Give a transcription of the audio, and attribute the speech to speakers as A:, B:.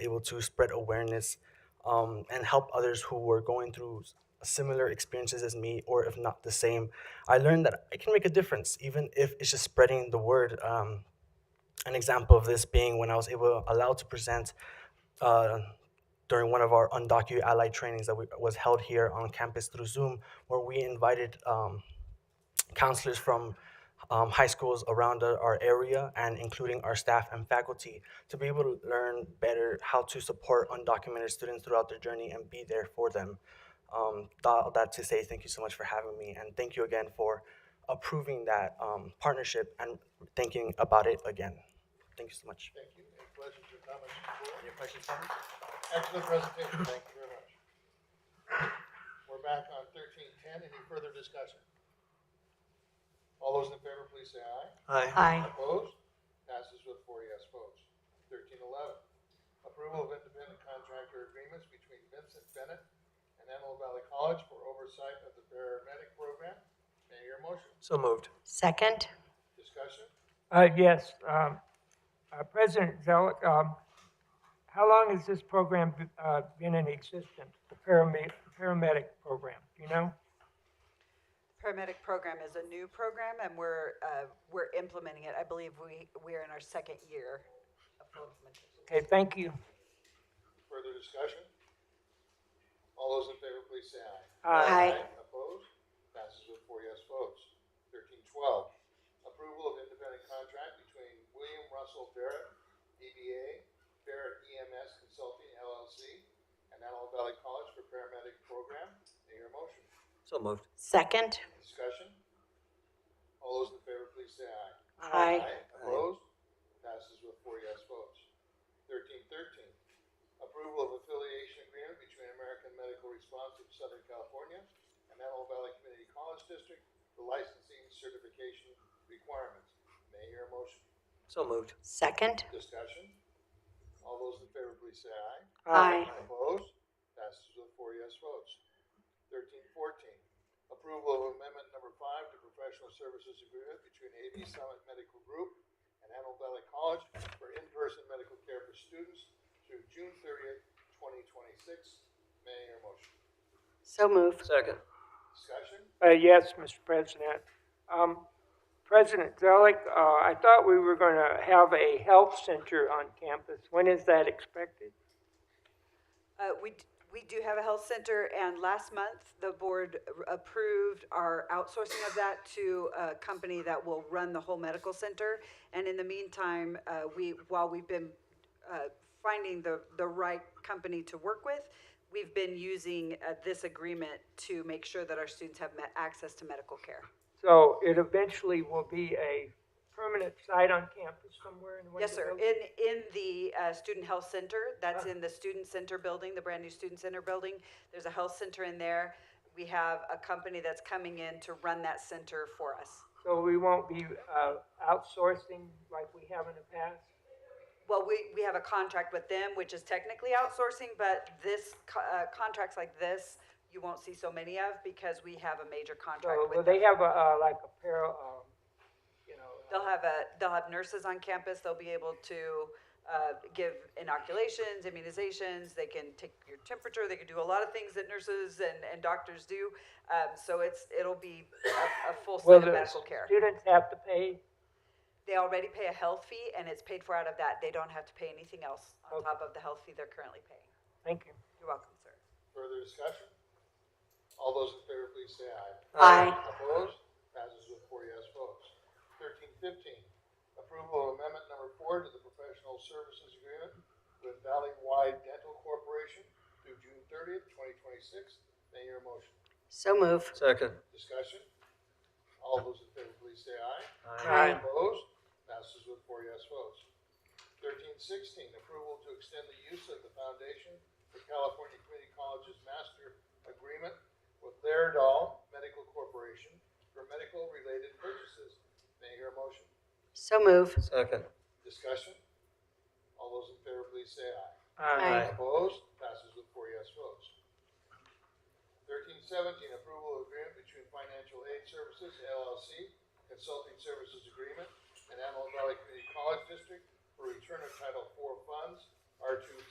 A: able to spread awareness um, and help others who were going through s- similar experiences as me, or if not the same. I learned that I can make a difference, even if it's just spreading the word. Um, an example of this being when I was able allowed to present uh, during one of our undocumented ally trainings that we, was held here on campus through Zoom, where we invited um, counselors from um, high schools around our our area and including our staff and faculty to be able to learn better how to support undocumented students throughout their journey and be there for them. Um, tha- all that to say, thank you so much for having me and thank you again for approving that um, partnership and thinking about it again. Thank you so much.
B: Thank you. Any questions or comments from the board? Any questions, comments? Excellent presentation, thank you very much. We're back on thirteen ten, any further discussion? All those in favor, please say aye.
C: Aye.
B: Opposed? Passes with four yes votes. Thirteen eleven, approval of independent contractor agreements between Vincent Bennett and Antelope Valley College for oversight of the paramedic program. May I hear a motion?
D: So moved.
C: Second?
B: Discussion?
E: Uh, yes, um, uh, President Zelik, um, how long has this program, be- uh, been in existence? The paramedic, paramedic program, do you know?
F: Paramedic program is a new program and we're, uh, we're implementing it. I believe we, we're in our second year of full implementation.
E: Okay, thank you.
B: Further discussion? All those in favor, please say aye.
E: Uh,
C: Aye.
B: Opposed? Passes with four yes votes. Thirteen twelve, approval of independent contract between William Russell Barrett, DBA, Barrett EMS Consulting LLC, and Antelope Valley College for paramedic program. May your motion.
D: So moved.
C: Second?
B: Discussion? All those in favor, please say aye.
C: Aye.
B: Opposed? Passes with four yes votes. Thirteen thirteen, approval of affiliation agreement between American Medical Response of Southern California and Antelope Valley Community College District for licensing certification requirements. May I hear a motion?
D: So moved.
C: Second?
B: Discussion? All those in favor, please say aye.
C: Aye.
B: Opposed? Passes with four yes votes. Thirteen fourteen, approval of amendment number five to professional services agreement between AV Summit Medical Group and Antelope Valley College for in-person medical care for students through June thirtieth, twenty twenty-six. May I hear a motion?
C: So move.
D: Second.
B: Discussion?
E: Uh, yes, Mr. President. Um, President Zelik, uh, I thought we were gonna have a health center on campus. When is that expected?
F: Uh, we, d- we do have a health center and last month, the board r- approved our outsourcing of that to a company that will run the whole medical center. And in the meantime, uh, we, while we've been, uh, finding the, the right company to work with, we've been using, uh, this agreement to make sure that our students have met access to medical care.
E: So it eventually will be a permanent site on campus somewhere in one of
F: Yes,
E: the
F: sir.
E: buildings?
F: In, in the uh, Student Health Center, that's in the Student Center building, the brand-new Student Center building. There's a health center in there. We have a company that's coming in to run that center for us.
E: So we won't be uh, outsourcing like we have in the past?
F: Well, we, we have a contract with them, which is technically outsourcing, but this, co- uh, contracts like this, you won't see so many of because we have a major contract
E: So will
F: with
E: they
F: them.
E: have a, uh, like a pair, um, you know, uh,
F: They'll have a, they'll have nurses on campus. They'll be able to, uh, give inoculations, immunizations. They can take your temperature. They can do a lot of things that nurses and, and doctors do. Um, so it's, it'll be a, a full
E: will
F: set
E: the
F: of medical care.
E: students have to pay?
F: They already pay a health fee and it's paid for out of that. They don't have to pay anything else on
E: Okay.
F: top of the health fee they're currently paying.
E: Thank you.
F: You're welcome, sir.
B: Further discussion? All those in favor, please say aye.
C: Aye.
B: Opposed? Passes with four yes votes. Thirteen fifteen, approval of amendment number four to the professional services agreement with Valley Wide Dental Corporation through June thirtieth, twenty twenty-six. May your motion.
C: So move.
D: Second.
B: Discussion? All those in favor, please say aye.
C: Aye.
B: Opposed? Passes with four yes votes. Thirteen sixteen, approval to extend the use of the foundation for California Community Colleges Master Agreement with Laerdal Medical Corporation for medical-related purchases. May I hear a motion?
C: So move.
D: Second.
B: Discussion? All those in favor, please say aye.
F: Uh,
C: Aye.
B: Opposed? Passes with four yes votes. Thirteen seventeen, approval of agreement between Financial Aid Services LLC, Consulting Services Agreement, and Antelope Valley Community College District for return of Title IV funds, R two